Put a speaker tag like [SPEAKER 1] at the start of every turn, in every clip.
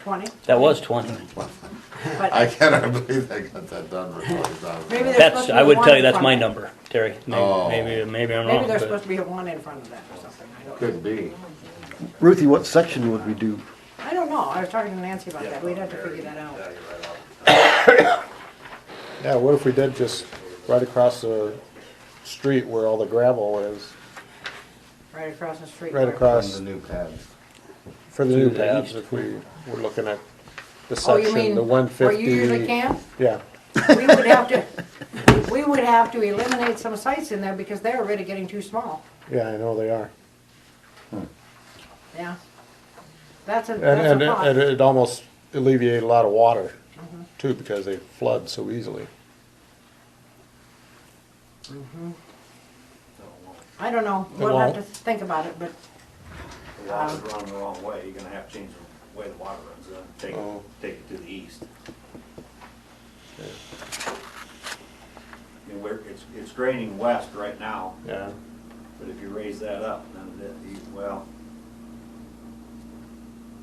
[SPEAKER 1] twenty?
[SPEAKER 2] That was twenty.
[SPEAKER 1] But
[SPEAKER 3] I cannot believe they got that done for twenty
[SPEAKER 1] Maybe
[SPEAKER 3] thousand.
[SPEAKER 1] they're-
[SPEAKER 2] That's, I would tell you, that's my number, Terry.
[SPEAKER 3] Oh.
[SPEAKER 2] Maybe, maybe- maybe I'm
[SPEAKER 1] maybe
[SPEAKER 2] wrong,
[SPEAKER 1] there's supposed
[SPEAKER 2] but
[SPEAKER 1] to be a one in front of that or something, I don't know.
[SPEAKER 3] Could be.
[SPEAKER 4] Ruthie, what section would we do?
[SPEAKER 1] I don't know, I was talking to Nancy about that, we'd have to figure that out.
[SPEAKER 5] Yeah, what if we did just right across the street where all the gravel is,
[SPEAKER 1] Right across the street.
[SPEAKER 5] right
[SPEAKER 1] where-
[SPEAKER 5] across
[SPEAKER 3] new pads.
[SPEAKER 5] for the new
[SPEAKER 2] the
[SPEAKER 5] pads,
[SPEAKER 2] east.
[SPEAKER 5] if we were looking at the
[SPEAKER 1] Oh, you
[SPEAKER 5] section,
[SPEAKER 1] mean,
[SPEAKER 5] the one fifty.
[SPEAKER 1] where you usually camp?
[SPEAKER 5] Yeah,
[SPEAKER 1] We would have to, we would have to eliminate some sites in there because they're already getting too small,
[SPEAKER 5] yeah, I know they are.
[SPEAKER 1] yeah. That's a, that's
[SPEAKER 5] And, and,
[SPEAKER 1] a
[SPEAKER 5] it- and
[SPEAKER 1] problem.
[SPEAKER 5] it almost alleviated a lot of water
[SPEAKER 1] Mm-hmm.
[SPEAKER 5] too, because they flood so easily.
[SPEAKER 1] I don't know,
[SPEAKER 5] It
[SPEAKER 1] we'll have
[SPEAKER 5] won't.
[SPEAKER 1] to think about it, but
[SPEAKER 6] The water's running the wrong way, you're gonna have to change the way the water runs, uh, take,
[SPEAKER 5] Oh.
[SPEAKER 6] it- take it to the east. I mean, we're, it's, it's draining west right now,
[SPEAKER 5] Yeah,
[SPEAKER 6] but if you raise that up, then it, you- well,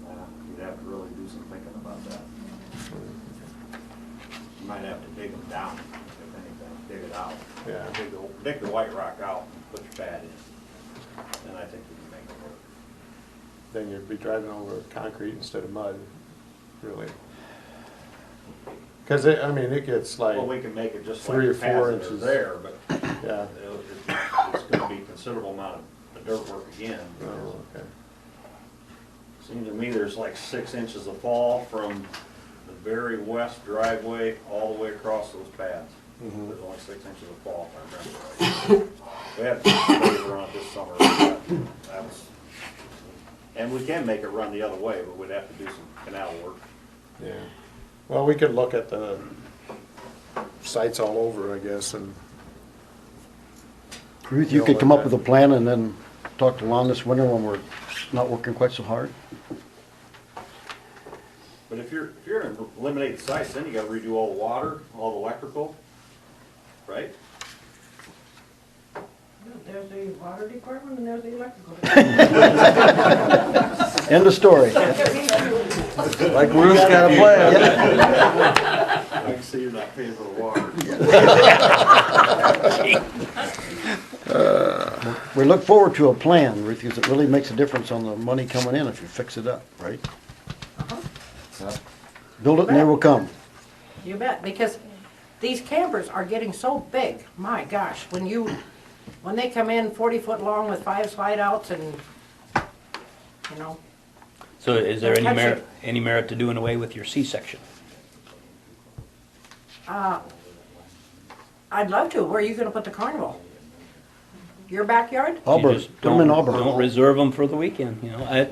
[SPEAKER 6] uh, you'd have to really do some thinking about that. You might have to dig them down, if anything, dig it out.
[SPEAKER 5] Yeah.
[SPEAKER 6] Dig the, dig the white rock out and put your pad in, and I think we can make it work.
[SPEAKER 5] then you'd be driving over concrete instead of mud, really. Cause it, I mean, it gets like,
[SPEAKER 6] Well, we can make it just
[SPEAKER 5] Three
[SPEAKER 6] like
[SPEAKER 5] or
[SPEAKER 6] the paths
[SPEAKER 5] four
[SPEAKER 6] that are
[SPEAKER 5] inches.
[SPEAKER 6] there, but
[SPEAKER 5] yeah.
[SPEAKER 6] it'll- it's, it's gonna be considerable amount of dirt work again.
[SPEAKER 5] Oh,
[SPEAKER 6] because
[SPEAKER 5] okay.
[SPEAKER 6] it Seems to me there's like six inches of fall from the very west driveway all the way across those paths.
[SPEAKER 5] Mhm.
[SPEAKER 6] There's only six inches of fall, if I remember right. We had some labor on it this summer, but that was, and we can make it run the other way, but we'd have to do some canal work.
[SPEAKER 5] Yeah, well, we could look at the sites all over, I guess, and,
[SPEAKER 4] Ruth, you could come up with a plan and then talk to Lon this winter when we're not working quite so hard.
[SPEAKER 6] But if you're, if you're gonna eliminate sites, then you gotta redo all the water, all the electrical, right?
[SPEAKER 1] there's the water department and there's the electrical.
[SPEAKER 4] End of story.
[SPEAKER 1] department.
[SPEAKER 4] Like Ruth's got a plan.
[SPEAKER 6] I can see you're not paying for the water.
[SPEAKER 4] We look forward to a plan, Ruth, because it really makes a difference on the money coming in if you fix it up, right?
[SPEAKER 2] Uh-huh.
[SPEAKER 4] Build it and they will come.
[SPEAKER 1] You bet, because these campers are getting so big, my gosh, when you, when they come in forty foot long with five slide outs and, you know,
[SPEAKER 2] so is there any
[SPEAKER 1] Actually-
[SPEAKER 2] merit, any merit to doing away with your C-section?
[SPEAKER 1] I'd love to, where are you gonna put the carnival? Your backyard?
[SPEAKER 2] You
[SPEAKER 4] Auburn,
[SPEAKER 2] just
[SPEAKER 4] put 'em in
[SPEAKER 2] don't-
[SPEAKER 4] Auburn.
[SPEAKER 2] Don't reserve them for the weekend, you know, I,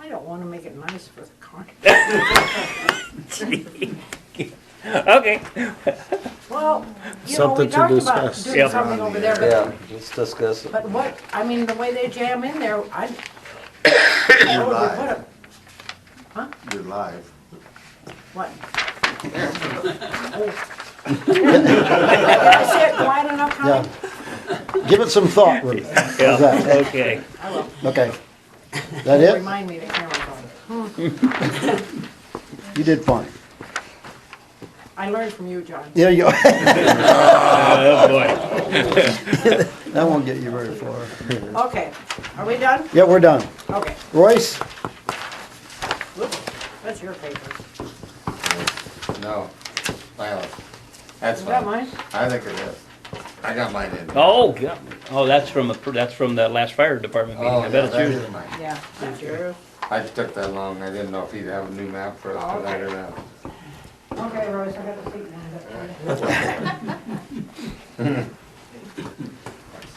[SPEAKER 1] I don't wanna make it nice for the carnival.
[SPEAKER 2] okay.
[SPEAKER 1] Well, you know, we
[SPEAKER 5] Something to
[SPEAKER 1] talked about
[SPEAKER 5] discuss.
[SPEAKER 1] doing
[SPEAKER 2] Yep.
[SPEAKER 1] something over there, but
[SPEAKER 7] let's discuss it.
[SPEAKER 1] But what, I mean, the way they jam in there, I, where would we Oh, put 'em?
[SPEAKER 3] You're live.
[SPEAKER 1] What? Oh. Did I say it quiet enough,
[SPEAKER 4] Yeah.
[SPEAKER 1] Connie?
[SPEAKER 4] Give it some thought, Ruth. How's
[SPEAKER 2] Yeah,
[SPEAKER 4] that?
[SPEAKER 2] okay.
[SPEAKER 1] I will.
[SPEAKER 4] Okay. That it?
[SPEAKER 1] Remind me the camera's on.
[SPEAKER 4] You did fine.
[SPEAKER 1] I learned from you, John.
[SPEAKER 4] Yeah, you, that
[SPEAKER 2] Oh, boy.
[SPEAKER 4] won't get you very far.
[SPEAKER 1] Okay, are we done?
[SPEAKER 4] Yeah, we're done.
[SPEAKER 1] Okay,
[SPEAKER 4] Royce?
[SPEAKER 1] whoops, that's your paper.
[SPEAKER 3] No, silence. That's
[SPEAKER 1] Is
[SPEAKER 3] fine.
[SPEAKER 1] that mine?
[SPEAKER 3] I think it is. I got mine in.
[SPEAKER 2] Oh, God. Oh, that's from, a- that's from the last fire department meeting,
[SPEAKER 3] Oh,
[SPEAKER 2] I
[SPEAKER 3] yeah,
[SPEAKER 2] bet it's
[SPEAKER 3] that
[SPEAKER 2] yours.
[SPEAKER 3] is mine.
[SPEAKER 1] Yeah. That's yours.
[SPEAKER 3] I took that long, I didn't know if you'd have a new map for
[SPEAKER 1] Oh,
[SPEAKER 3] us tonight or not.
[SPEAKER 1] Okay, Rose, I got the seat now.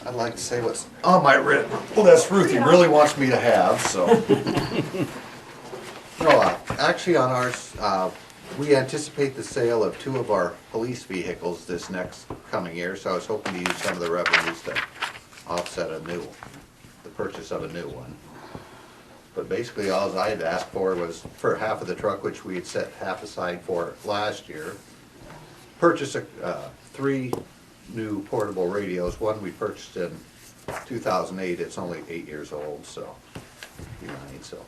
[SPEAKER 3] I'd like to say what's on my wrist. Well, that's Ruthie really wants me to have, so.
[SPEAKER 8] No, uh, actually on ours, uh, we anticipate the sale of two of our police vehicles this next coming year, so I was hoping to use some of the revenues to offset a new, the purchase of a new one. But basically, all I'd asked for was for half of the truck, which we had set half aside for last year, purchase a, uh, three new portable radios. One we purchased in two thousand eight, it's only eight years old, so, you know, so